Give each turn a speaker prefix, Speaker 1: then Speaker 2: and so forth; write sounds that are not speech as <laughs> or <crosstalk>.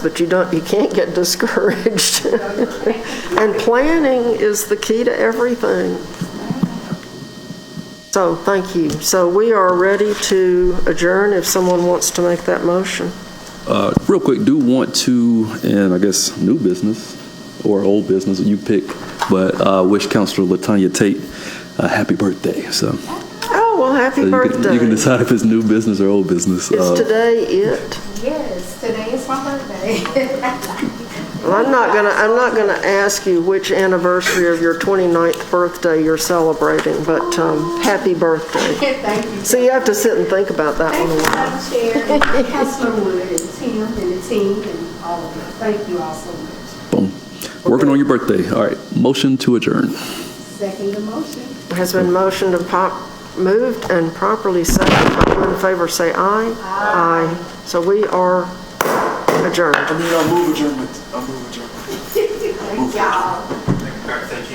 Speaker 1: But you don't, you can't get discouraged. <laughs> And planning is the key to everything. So, thank you. So we are ready to adjourn if someone wants to make that motion.
Speaker 2: Uh, Real quick, do want to, and I guess new business or old business, you pick, but uh, wish Counselor Latanya Tate a happy birthday. So
Speaker 1: Oh, well,
Speaker 2: so
Speaker 1: happy
Speaker 2: you can- you can
Speaker 1: birthday. Is
Speaker 2: decide if it's new business or old business. Uh,
Speaker 1: today it?
Speaker 3: Yes, today is my birthday.
Speaker 1: Well, I'm not gonna, I'm not gonna ask you which anniversary of your 29th birthday you're celebrating, but um, happy birthday.
Speaker 3: <laughs> Thank you.
Speaker 1: So you have to sit and think about that
Speaker 3: Thank
Speaker 1: one a
Speaker 3: you,
Speaker 1: while.
Speaker 3: Madam Chair, and Councilor Wood, and Tim, and the team, and all of you. Thank you all so much.
Speaker 2: boom. Working on your birthday. All right. Motion to adjourn.
Speaker 3: Second the motion. <laughs>
Speaker 1: Has been motioned and pop, moved and properly seconded. All in favor, say aye. Aye. So we are adjourned.
Speaker 4: I mean, I move adjournment. I move adjournment.
Speaker 3: Thank y'all.